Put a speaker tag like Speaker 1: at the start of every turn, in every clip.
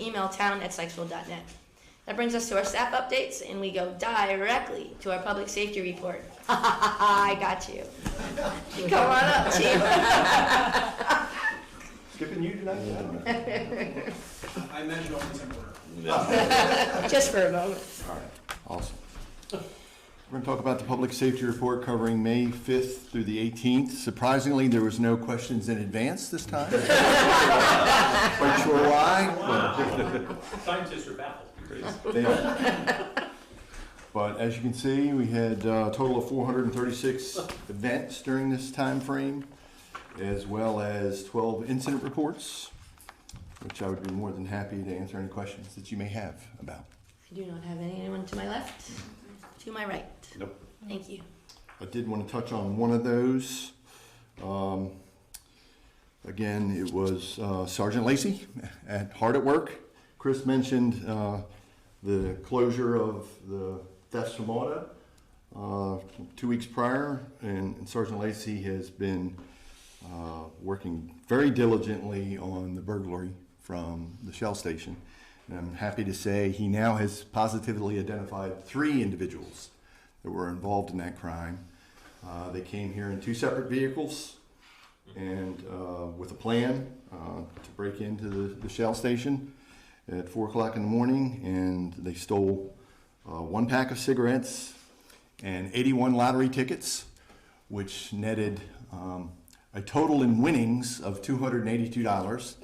Speaker 1: email town at net. That brings us to our staff updates, and we go directly to our public safety report. I got you. Come on up, chief.
Speaker 2: Skipping you tonight? I don't know.
Speaker 3: I meant it all in order.
Speaker 1: Just for a moment.
Speaker 2: Awesome. We're going to talk about the public safety report covering May 5th through the 18th. Surprisingly, there was no questions in advance this time. Quite sure why.
Speaker 4: Scientists are baffled.
Speaker 2: but they are. But as you can see, we had uh, a total of 436 events during this time frame, as well as 12 incident reports, which I would be more than happy to answer any questions that you may have about.
Speaker 1: I do not have anyone to my left, to my right.
Speaker 2: Nope.
Speaker 1: Thank you.
Speaker 2: I did want to touch on one of those. Um, again, it was uh, Sergeant Lacey at Hard at Work. Chris mentioned uh, the closure of the thefts from auto uh, two weeks prior, and, and Sergeant Lacey has been uh, working very diligently on the burglary from the Shell station. And I'm happy to say he now has positively identified three individuals that were involved in that crime. Uh, they came here in two separate vehicles and uh, with a plan uh, to break into the, the Shell station at four o'clock in the morning, and they stole uh, one pack of cigarettes and 81 lottery tickets, which netted um, a total in winnings of $282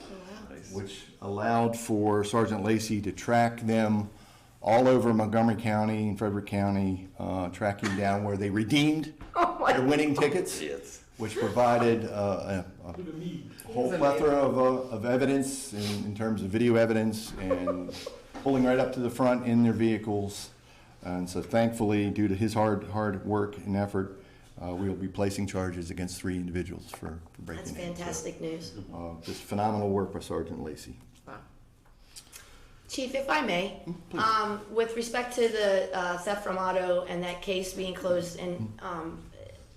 Speaker 2: which allowed for Sergeant Lacey to track them all over Montgomery County and Frederick County, uh, tracking down where they redeemed
Speaker 1: Oh
Speaker 2: their winning tickets, which provided uh, a, a whole plethora of, uh, of evidence in, in terms of video evidence and pulling right up to the front in their vehicles. And so thankfully, due to his hard, hard work and effort, uh, we will be placing charges against three individuals for, for breaking
Speaker 1: That's
Speaker 2: in. So,
Speaker 1: fantastic news.
Speaker 2: Uh, just phenomenal work by Sergeant Lacey.
Speaker 1: Chief, if I may, um, with respect to the uh, theft from auto and that case being closed, and um,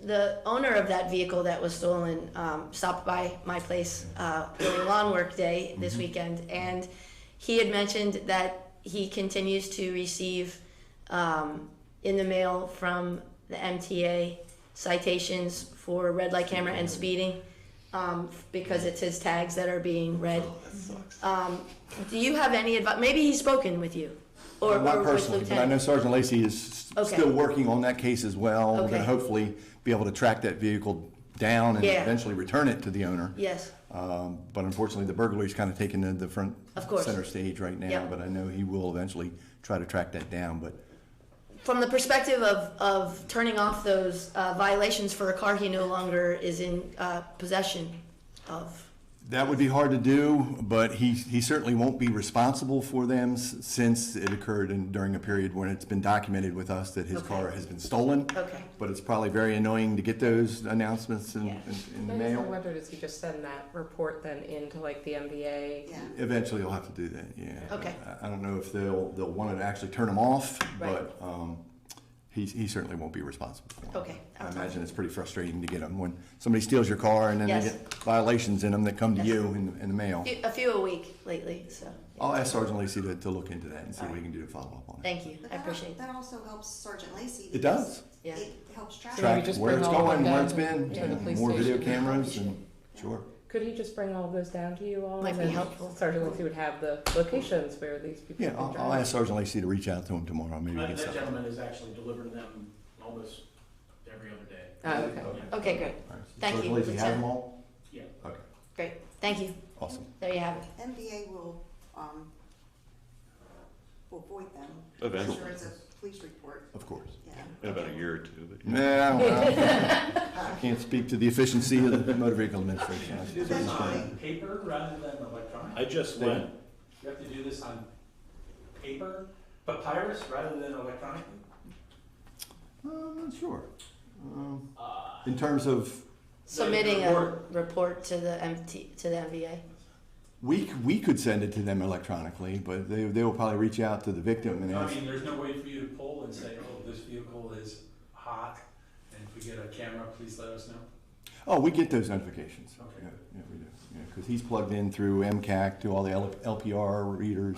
Speaker 1: the owner of that vehicle that was stolen um, stopped by my place uh, during lawn work day this
Speaker 2: Mm-hmm.
Speaker 1: weekend, and he had mentioned that he continues to receive um, in the mail from the MTA citations for red light camera and speeding um, because it's his tags that are being read.
Speaker 2: Oh,
Speaker 1: Um, do you have any advice? Maybe he's spoken with you, or, or
Speaker 2: Not
Speaker 1: with
Speaker 2: personally, but I know
Speaker 1: Lieutenant.
Speaker 2: Sergeant Lacey is s-
Speaker 1: Okay.
Speaker 2: still working on that case as well. We're
Speaker 1: Okay.
Speaker 2: gonna hopefully be able to track that vehicle down and
Speaker 1: Yeah.
Speaker 2: eventually return it to the owner.
Speaker 1: Yes.
Speaker 2: Um, But unfortunately, the burglary's kind of taken the- the front,
Speaker 1: Of course.
Speaker 2: center stage right now.
Speaker 1: Yep.
Speaker 2: But I know he will eventually try to track that down, but
Speaker 1: From the perspective of, of turning off those uh, violations for a car he no longer is in uh, possession of.
Speaker 2: that would be hard to do, but he, he certainly won't be responsible for them s- since it occurred in, during a period when it's been documented with us that his
Speaker 1: Okay.
Speaker 2: car has been stolen.
Speaker 1: Okay.
Speaker 2: But it's probably very annoying to get those announcements in,
Speaker 1: Yeah.
Speaker 2: in, in the
Speaker 5: I just
Speaker 2: mail.
Speaker 5: wonder, does he just send that report then into like the MBA?
Speaker 6: Yeah.
Speaker 2: Eventually, you'll have to do that. Yeah.
Speaker 1: Okay.
Speaker 2: I, I don't know if they'll they'll want to actually turn them off,
Speaker 1: Right.
Speaker 2: but um, he he certainly won't be responsible. For 'em.
Speaker 1: Okay.
Speaker 2: I imagine it's pretty frustrating to get them when somebody steals your car and then
Speaker 1: Yes.
Speaker 2: they get violations in them that come to
Speaker 1: Yes.
Speaker 2: you in, in the mail.
Speaker 1: Few- A few a week lately, so
Speaker 2: I'll ask Sergeant Lacey to, to look into that and see what we can do to follow up on it.
Speaker 1: thank you.
Speaker 6: But
Speaker 1: I
Speaker 6: that al-
Speaker 1: appreciate that.
Speaker 6: That also helps Sergeant Lacey.
Speaker 2: It does.
Speaker 1: Yeah.
Speaker 6: It helps track.
Speaker 5: So
Speaker 2: Track
Speaker 5: maybe just
Speaker 2: where
Speaker 5: bring
Speaker 2: it's
Speaker 5: all of
Speaker 2: going,
Speaker 5: them
Speaker 2: where
Speaker 5: down
Speaker 2: it's
Speaker 5: to-
Speaker 2: been,
Speaker 5: yeah, the
Speaker 2: and
Speaker 5: police
Speaker 2: more video
Speaker 5: station.
Speaker 2: cameras, and sure.
Speaker 5: Could he just bring all of those down to you all?
Speaker 1: Might
Speaker 5: and
Speaker 1: be
Speaker 5: then
Speaker 1: helpful.
Speaker 5: Sergeant Lindsay would have the locations where these people.
Speaker 2: Yeah,
Speaker 5: can
Speaker 2: I'll, I'll
Speaker 5: drive.
Speaker 2: ask Sergeant Lacey to reach out to him tomorrow. Maybe we
Speaker 4: That
Speaker 2: can
Speaker 4: that
Speaker 2: set
Speaker 4: gentleman is actually delivering them almost every other day.
Speaker 5: Oh, okay.
Speaker 1: Okay, great,
Speaker 2: All right. So
Speaker 1: Thank
Speaker 2: Sergeant
Speaker 1: you.
Speaker 2: Lacey have them all?
Speaker 4: Yeah.
Speaker 2: Okay,
Speaker 1: great. Thank you.
Speaker 2: awesome.
Speaker 1: There you have it.
Speaker 6: MBA will, um, will void them.
Speaker 7: Eventually.
Speaker 6: I'm sure it's a police report,
Speaker 2: Of course.
Speaker 6: yeah.
Speaker 7: In about a year or two, but
Speaker 2: Nah, I don't know. I can't speak to the efficiency of the motor vehicle administration.
Speaker 4: You do this on paper rather than electronic.
Speaker 7: I just
Speaker 2: They-
Speaker 7: went,
Speaker 4: You have to do this on paper, papyrus rather than electronic.
Speaker 2: Uh, I'm not sure. Um,
Speaker 5: Uh,
Speaker 2: In terms of,
Speaker 1: Submitting a
Speaker 4: report.
Speaker 1: report to the MT, to the MVA.
Speaker 2: we, c- we could send it to them electronically, but they, they will probably reach out to the victim and
Speaker 4: I
Speaker 2: ask.
Speaker 4: mean, there's no way for you to pull and say, oh, this vehicle is hot, and if we get a camera, please let us know.
Speaker 2: Oh, we get those notifications.
Speaker 4: Okay.
Speaker 2: Yeah, yeah, we do. Because he's plugged in through MCAC to all the L- LPR readers